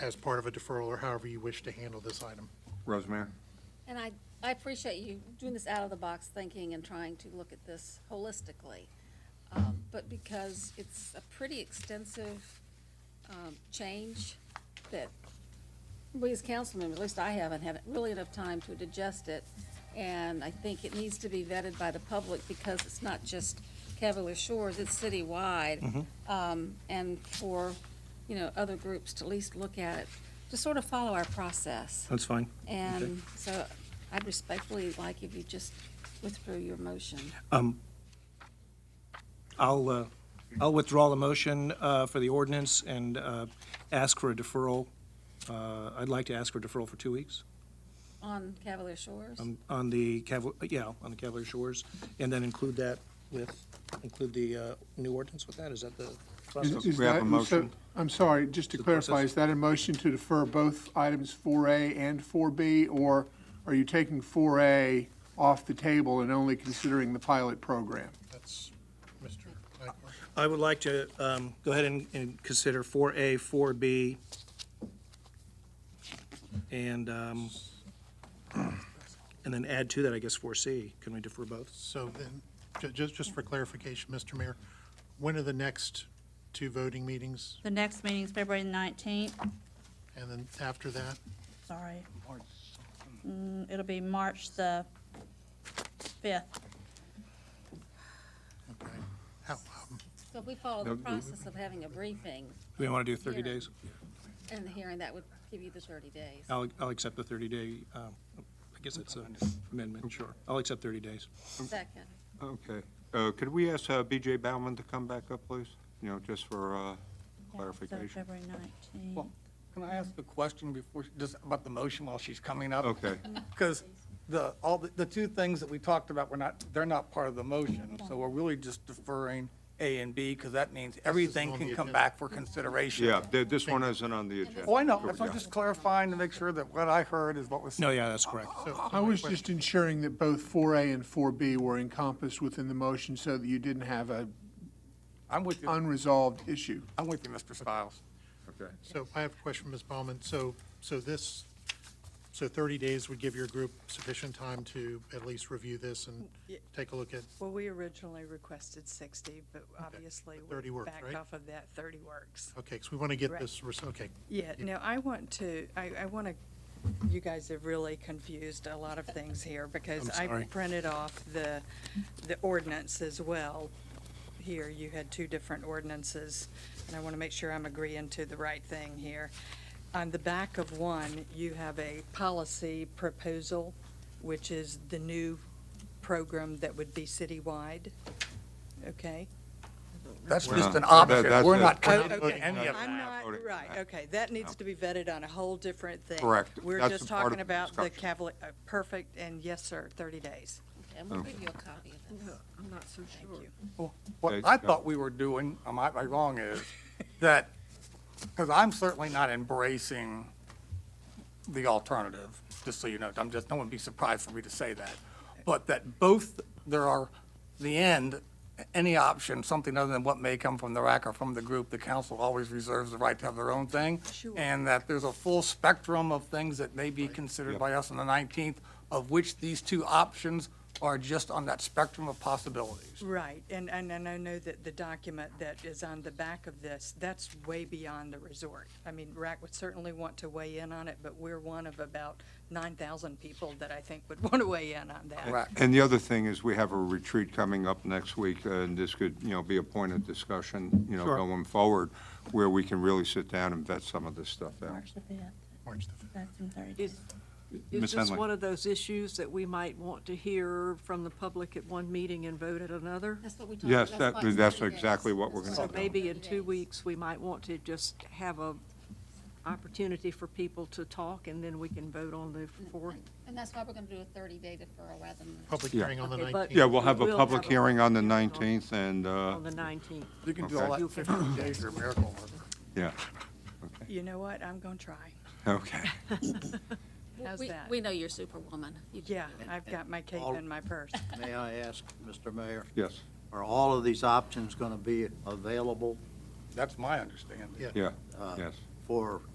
as part of a deferral or however you wish to handle this item. Rosemary? And I, I appreciate you doing this out-of-the-box thinking and trying to look at this holistically. Um, But because it's a pretty extensive um, change that we as council members, at least I haven't, had really enough time to digest it. And I think it needs to be vetted by the public because it's not just Cavalier Shores, it's citywide. Um, And for, you know, other groups to at least look at it, to sort of follow our process. That's fine. And so I'd respectfully like if you just withdrew your motion. I'll, uh, I'll withdraw the motion uh, for the ordinance and uh, ask for a deferral. Uh, I'd like to ask for a deferral for two weeks On Cavalier Shores? Um, on- on the Cavalier, yeah, on the Cavalier Shores, and then include that with, include the uh, new ordinance with that? Is that the process? Is- We have a that- so- motion. I'm sorry, just to the process. clarify, is that a motion to defer both items 4A and 4B? Or are you taking 4A off the table and only considering the pilot program? That's Mr. Blackmore. I would like to um, go ahead and- and consider 4A, 4B, and, um, and then add to that, I guess, 4C. Can we defer both? So then, ju- just, just for clarification, Mr. Mayor, when are the next two voting meetings? The next meeting is February 19th, And then after that, sorry. Mm, It'll be March the 5th. okay. How, um, So if we follow No, the no. process of having a briefing Do we want to do 30 Yeah. days? and the hearing, that would give you the 30 days. Um, I'll, I'll accept the 30-day, I guess it's an amendment, sure. I'll accept 30 days. Second. Okay. Uh, Could we ask uh, BJ Bauman to come back up, please? You know, just for uh, So clarification. February 19th. Well, Can I ask a question before, she- just about the motion while she's coming up? Okay. Because the, all, the the two things that we talked about were not, they're not part of the motion. So we're really just deferring A and B because that means everything on can the come agenda. back for consideration. Yeah, th- this one isn't on the agenda. Oh, I know. That's why I'm just clarifying to make sure that what I heard is what was said. No, yeah, that's correct. so- so I my was question- just ensuring that both 4A and 4B were encompassed within the motion so that you didn't have a I'm with you, unresolved issue. I'm with you, Mr. Stiles. Okay. So I have a question, Ms. Baumann. So, so this, so 30 days would give your group sufficient time to at least review this and Yeah. take a look at, Well, we originally requested 60, but obviously But 30 we works, right? backed off of that. 30 works. okay, because we want to get Right. this, res- okay. Yeah, no, I want to, I, I want to, you guys have really confused a lot of things here because I'm I sorry. printed off the, the ordinance as well. Here, you had two different ordinances, and I want to make sure I'm agreeing to the right thing here. On the back of one, you have a policy proposal, which is the new program that would be citywide, okay? That's We're just not- an that- option. that's We're it. not Oh, committing okay. to any of I'm that. not, voting. right, okay, that needs to be vetted on a whole different thing. Correct. We're That's just a part of talking the about the discussion. Cavalier, uh, perfect, and yes, sir, 30 days. And um, we'll give you a copy of this. I'm not so sure. Well, What Okay, I go. thought we were doing, am I am I wrong, is that, because I'm certainly not embracing the alternative, just so you know, I'm just, no one would be surprised for me to say that. But that both, there are, the end, any option, something other than what may come from the rack or from the group, the council always reserves the right to have their own thing. Sure. And that there's a full spectrum of things that may be considered by us on the 19th, of which these two options are just on that spectrum of possibilities. Right, and, and and I know that the document that is on the back of this, that's way beyond the resort. I mean, RAC would certainly want to weigh in on it, but we're one of about 9,000 people that I think would want to weigh in on that. Right. And the other thing is, we have a retreat coming up next week, uh, and this could, you know, be a point of discussion, you know, Sure. going forward, where we can really sit down and vet some of this stuff out. March the 5th, March the 5th. that's in 30 Is, Ms. is this Henley. one of those issues that we might want to hear from the public at one meeting and vote at another? That's what we talked about. Yes, that, why it's that's 30 days. exactly what we're going So to do. maybe in two 30 days. weeks, we might want to just have a opportunity for people to talk, and then we can vote on the fourth. And that's why we're going to do a 30-day deferral rather than. Public Yeah. hearing on the Okay, 19th. but- Yeah, we'll have We'll have a public a- hearing on the 19th, and, uh, On the nineteenth. You can do all that in 15 days, you're a miracle worker. yeah, You know what, I'm going to try. okay. How's We- that? We know you're superwoman. You can Yeah, do it. I've got my cape All- in my purse. May I ask, Mr. Mayor, Yes, are all of these options going to be available That's my understanding. Uh, Yeah. yeah, yes. for